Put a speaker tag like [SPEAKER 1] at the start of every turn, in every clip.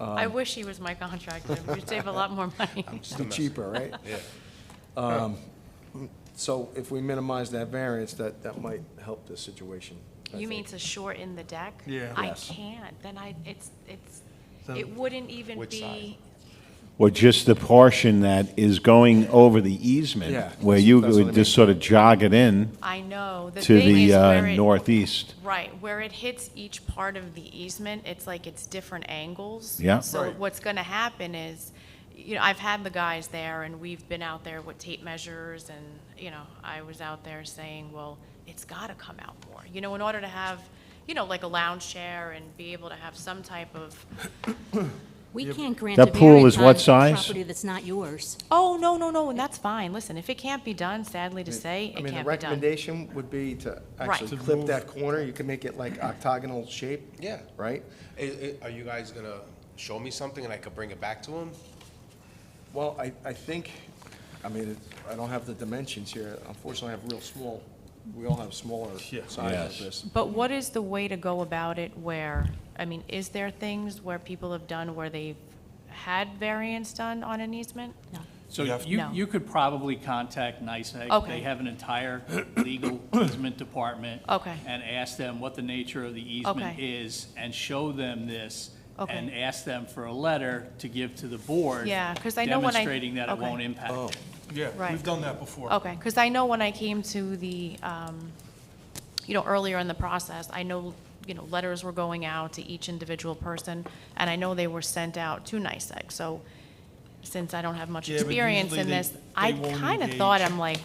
[SPEAKER 1] I wish he was my contractor. We'd save a lot more money.
[SPEAKER 2] Be cheaper, right? Um,
[SPEAKER 3] Yeah.
[SPEAKER 2] So if we minimize that variance, that, that might help this situation. I
[SPEAKER 1] You mean
[SPEAKER 2] think.
[SPEAKER 1] to shorten the deck?
[SPEAKER 4] Yeah.
[SPEAKER 1] I
[SPEAKER 2] Yes.
[SPEAKER 1] can't, then I, it's, it's,
[SPEAKER 4] Then-
[SPEAKER 1] it wouldn't even
[SPEAKER 3] Which
[SPEAKER 1] be,
[SPEAKER 5] Or just the portion that is going over the
[SPEAKER 2] Yeah,
[SPEAKER 5] easement, where you
[SPEAKER 2] that's what I
[SPEAKER 5] would just sort of jog it in
[SPEAKER 1] I know. The
[SPEAKER 5] to
[SPEAKER 1] thing
[SPEAKER 5] the
[SPEAKER 1] is
[SPEAKER 5] uh,
[SPEAKER 1] where it-
[SPEAKER 5] northeast.
[SPEAKER 1] Right, where it hits each part of the easement, it's like it's different angles.
[SPEAKER 5] Yeah.
[SPEAKER 1] So
[SPEAKER 4] Right.
[SPEAKER 1] what's gonna happen is, you know, I've had the guys there and we've been out there with tape measures and, you know, I was out there saying, well, it's gotta come out more. You know, in order to have, you know, like a lounge chair and be able to have some type of,
[SPEAKER 6] We can't grant a
[SPEAKER 5] That pool
[SPEAKER 6] variance
[SPEAKER 5] is
[SPEAKER 6] on
[SPEAKER 5] what size?
[SPEAKER 6] Property that's not yours.
[SPEAKER 1] oh, no, no, no, and that's fine. Listen, if it can't be done, sadly to say, it
[SPEAKER 2] I mean,
[SPEAKER 1] can't
[SPEAKER 2] the
[SPEAKER 1] be done.
[SPEAKER 2] recommendation would be to
[SPEAKER 1] Right.
[SPEAKER 2] actually
[SPEAKER 1] To
[SPEAKER 2] clip
[SPEAKER 4] move-
[SPEAKER 2] that corner, you can make it like octagonal shape.
[SPEAKER 3] Yeah.
[SPEAKER 2] Right?
[SPEAKER 3] I- I- Are you guys gonna show me something and I could bring it back to him?
[SPEAKER 2] Well, I, I think, I mean, it- I don't have the dimensions here, unfortunately, I have real small, we all have smaller
[SPEAKER 4] Yeah.
[SPEAKER 2] size
[SPEAKER 5] Yes.
[SPEAKER 2] of this.
[SPEAKER 1] But what is the way to go about it where, I mean, is there things where people have done where they've had variance done on an easement?
[SPEAKER 7] So
[SPEAKER 4] You have-
[SPEAKER 7] you,
[SPEAKER 1] No.
[SPEAKER 7] you could probably contact NICEAG.
[SPEAKER 1] Okay.
[SPEAKER 7] E. They have an entire legal easement department.
[SPEAKER 1] Okay.
[SPEAKER 7] And ask them what the nature of the easement
[SPEAKER 1] Okay.
[SPEAKER 7] is and show them this.
[SPEAKER 1] Okay.
[SPEAKER 7] And ask them for a letter to give to the board.
[SPEAKER 1] Yeah, 'cause I know when I-
[SPEAKER 7] Demonstrating that it
[SPEAKER 1] okay.
[SPEAKER 7] won't impact it.
[SPEAKER 4] Yeah,
[SPEAKER 1] Right. Oh,
[SPEAKER 4] we've done that before.
[SPEAKER 1] Okay, because I know when I came to the, um, you know, earlier in the process, I know, you know, letters were going out to each individual person, and I know they were sent out to NICEAG. E So since I don't have much
[SPEAKER 4] Yeah, but
[SPEAKER 1] experience
[SPEAKER 4] usually
[SPEAKER 1] in
[SPEAKER 4] they-
[SPEAKER 1] this,
[SPEAKER 4] they
[SPEAKER 1] I
[SPEAKER 4] won't
[SPEAKER 1] kind of thought,
[SPEAKER 4] engage.
[SPEAKER 1] I'm like,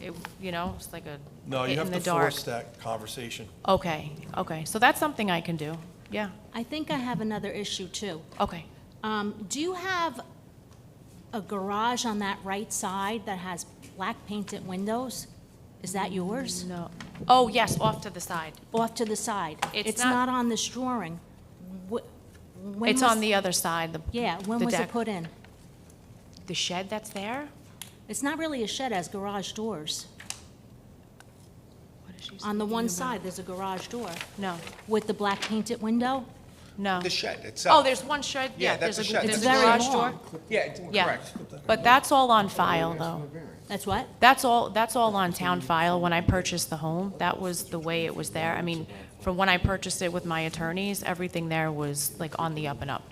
[SPEAKER 1] it- you know, it's like a
[SPEAKER 4] No, you
[SPEAKER 1] hit
[SPEAKER 4] have
[SPEAKER 1] in the
[SPEAKER 4] to
[SPEAKER 1] dark.
[SPEAKER 4] force that conversation.
[SPEAKER 1] Okay, okay, so that's something I can do, yeah,
[SPEAKER 6] I think I have another issue too.
[SPEAKER 1] okay.
[SPEAKER 6] Um, do you have a garage on that right side that has black painted windows? Is that yours?
[SPEAKER 1] No, oh, yes, off to the side.
[SPEAKER 6] Off to the side?
[SPEAKER 1] It's
[SPEAKER 6] It's
[SPEAKER 1] not-
[SPEAKER 6] not on this drawing. Wh- when
[SPEAKER 1] It's
[SPEAKER 6] was-
[SPEAKER 1] on the other side, the
[SPEAKER 6] Yeah, when
[SPEAKER 1] the
[SPEAKER 6] was it
[SPEAKER 1] deck.
[SPEAKER 6] put in?
[SPEAKER 1] The shed that's there?
[SPEAKER 6] It's not really a shed, it has garage doors.
[SPEAKER 1] What is she
[SPEAKER 6] On the one
[SPEAKER 1] speaking about?
[SPEAKER 6] side, there's a garage door
[SPEAKER 1] Uh, No,
[SPEAKER 6] with the black painted window.
[SPEAKER 1] no.
[SPEAKER 3] The shed itself?
[SPEAKER 1] Oh, there's one shed,
[SPEAKER 3] Yeah,
[SPEAKER 1] yeah, there's a
[SPEAKER 3] that's a
[SPEAKER 1] gr-
[SPEAKER 3] shed.
[SPEAKER 1] there's a
[SPEAKER 6] It's very
[SPEAKER 1] garage door.
[SPEAKER 6] long.
[SPEAKER 3] Yeah, it's-
[SPEAKER 1] Yeah,
[SPEAKER 3] correct.
[SPEAKER 1] but that's all on file, though.
[SPEAKER 6] That's what?
[SPEAKER 1] That's all, that's all on town file. When I purchased the home, that was the way it was there. I mean, from when I purchased it with my attorneys, everything there was like on the up and up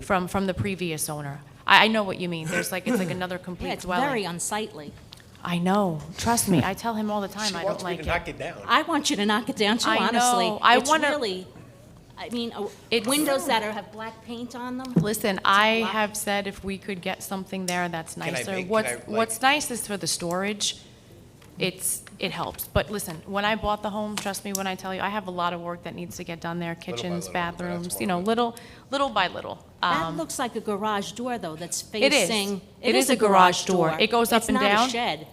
[SPEAKER 1] from, from the previous owner. I, I know what you mean. There's like, it's like another
[SPEAKER 6] Yeah,
[SPEAKER 1] complete
[SPEAKER 6] it's very
[SPEAKER 1] dwelling.
[SPEAKER 6] unsightly.
[SPEAKER 1] I know, trust me. I tell him all the time,
[SPEAKER 3] She
[SPEAKER 1] I don't
[SPEAKER 3] wants me to
[SPEAKER 1] like
[SPEAKER 3] knock
[SPEAKER 1] it.
[SPEAKER 3] it down.
[SPEAKER 6] I want you to knock it down too,
[SPEAKER 1] I
[SPEAKER 6] honestly.
[SPEAKER 1] know. I
[SPEAKER 6] It's
[SPEAKER 1] wanna-
[SPEAKER 6] really, I mean, uh,
[SPEAKER 1] It's-
[SPEAKER 6] windows that are, have black paint on them.
[SPEAKER 1] Listen, I have said if we could get something there that's
[SPEAKER 3] I
[SPEAKER 1] nicer.
[SPEAKER 3] make- can
[SPEAKER 1] What's,
[SPEAKER 3] I, like-
[SPEAKER 1] what's nice is for the storage, it's, it helps. But listen, when I bought the home, trust me when I tell you, I have a lot of work that needs to get done there,
[SPEAKER 3] by
[SPEAKER 1] kitchens,
[SPEAKER 3] little, that's
[SPEAKER 1] bathrooms,
[SPEAKER 3] what
[SPEAKER 1] you know,
[SPEAKER 3] I'm-
[SPEAKER 1] little, little by little.
[SPEAKER 6] That
[SPEAKER 1] Um,
[SPEAKER 6] looks like a garage door, though, that's
[SPEAKER 1] It is.
[SPEAKER 6] facing.
[SPEAKER 1] It is a garage door. It goes up and down.
[SPEAKER 6] It's not a shed.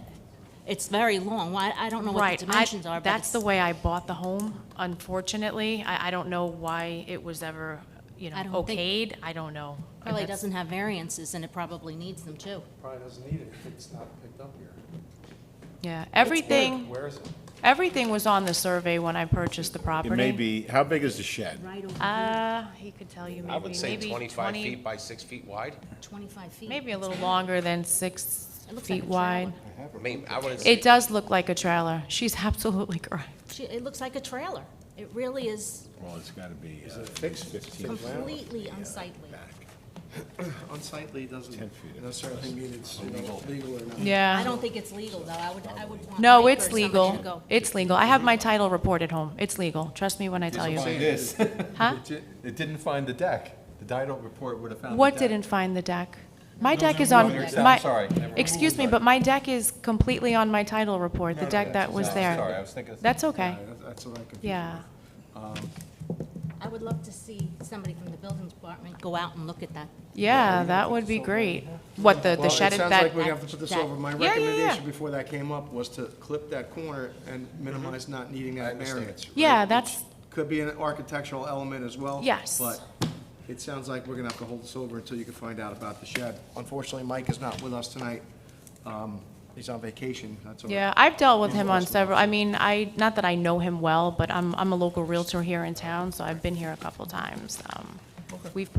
[SPEAKER 6] It's very long. Why, I don't know what
[SPEAKER 1] Right,
[SPEAKER 6] the
[SPEAKER 1] I-
[SPEAKER 6] dimensions are, but
[SPEAKER 1] That's the
[SPEAKER 6] it's-
[SPEAKER 1] way I bought the home, unfortunately. I, I don't know why it was ever, you know,
[SPEAKER 6] I don't think-
[SPEAKER 1] okayed. I don't know. And
[SPEAKER 6] Probably
[SPEAKER 1] that's-
[SPEAKER 6] doesn't have variances, and it probably needs them, too.
[SPEAKER 2] Probably doesn't need it if it's not picked up here.
[SPEAKER 1] Yeah, everything,
[SPEAKER 2] Where is it?
[SPEAKER 1] everything was on the survey when I purchased the property.
[SPEAKER 5] It may be, how big is the shed?
[SPEAKER 6] Right over here,
[SPEAKER 1] Uh, he could tell you maybe,
[SPEAKER 3] I would say
[SPEAKER 1] maybe
[SPEAKER 3] 25
[SPEAKER 1] 20
[SPEAKER 3] feet by 6 feet wide.
[SPEAKER 6] 25 feet.
[SPEAKER 1] Maybe a little longer than six
[SPEAKER 6] It looks like
[SPEAKER 1] feet
[SPEAKER 6] a trailer.
[SPEAKER 1] wide.
[SPEAKER 3] I mean, I wouldn't say,
[SPEAKER 1] It does look like a trailer. She's absolutely correct.
[SPEAKER 6] Gee, It looks like a trailer. It really is
[SPEAKER 5] Well, it's got to be uh,
[SPEAKER 2] fixed?
[SPEAKER 5] 15
[SPEAKER 6] completely unsightly.
[SPEAKER 2] Unsightly doesn't
[SPEAKER 5] 10 feet.
[SPEAKER 2] necessarily mean it's you know, legal or not.
[SPEAKER 6] I
[SPEAKER 1] Yeah.
[SPEAKER 6] don't think it's legal, though. I would, I would want.
[SPEAKER 1] Um, No,
[SPEAKER 6] Mike or
[SPEAKER 1] it's
[SPEAKER 6] somebody to
[SPEAKER 1] legal.
[SPEAKER 6] go.
[SPEAKER 1] It's legal. I have my title report at home. It's legal. Trust me when I tell you.
[SPEAKER 8] this.
[SPEAKER 1] Huh?
[SPEAKER 8] It didn't find the deck. The Dido report would have found the deck.
[SPEAKER 1] What didn't find the deck? My deck is
[SPEAKER 8] are
[SPEAKER 1] on,
[SPEAKER 8] moved.
[SPEAKER 1] my,
[SPEAKER 8] I'm sorry. Never mind.
[SPEAKER 1] excuse me, but my deck is completely on my title report, the deck that was there.
[SPEAKER 8] Sorry, I was thinking.
[SPEAKER 1] That's okay.
[SPEAKER 2] That's- That's what I confused.
[SPEAKER 1] Yeah.
[SPEAKER 6] I would love to see somebody from the building department go out and look at that.
[SPEAKER 1] Yeah, that would be great. What, the, the
[SPEAKER 2] Well,
[SPEAKER 1] shed
[SPEAKER 2] it
[SPEAKER 1] is
[SPEAKER 2] sounds
[SPEAKER 1] that?
[SPEAKER 2] like we have to put this over. My
[SPEAKER 1] Yeah, yeah, yeah.
[SPEAKER 2] recommendation before that came up was to clip that corner and minimize not needing that
[SPEAKER 8] understand.
[SPEAKER 2] variance.
[SPEAKER 1] Yeah,
[SPEAKER 2] Which
[SPEAKER 1] that's-
[SPEAKER 2] Could be an architectural element as well.
[SPEAKER 1] Yes.
[SPEAKER 2] But it sounds like we're gonna have to hold this over until you can find out about the shed. Unfortunately, Mike is not with us tonight. Um, He's on vacation, that's all.
[SPEAKER 1] Yeah, I've dealt with him on several, I mean, I, not that I know him well, but I'm, I'm a local Realtor here in town, so I've been here a couple times. Um, We've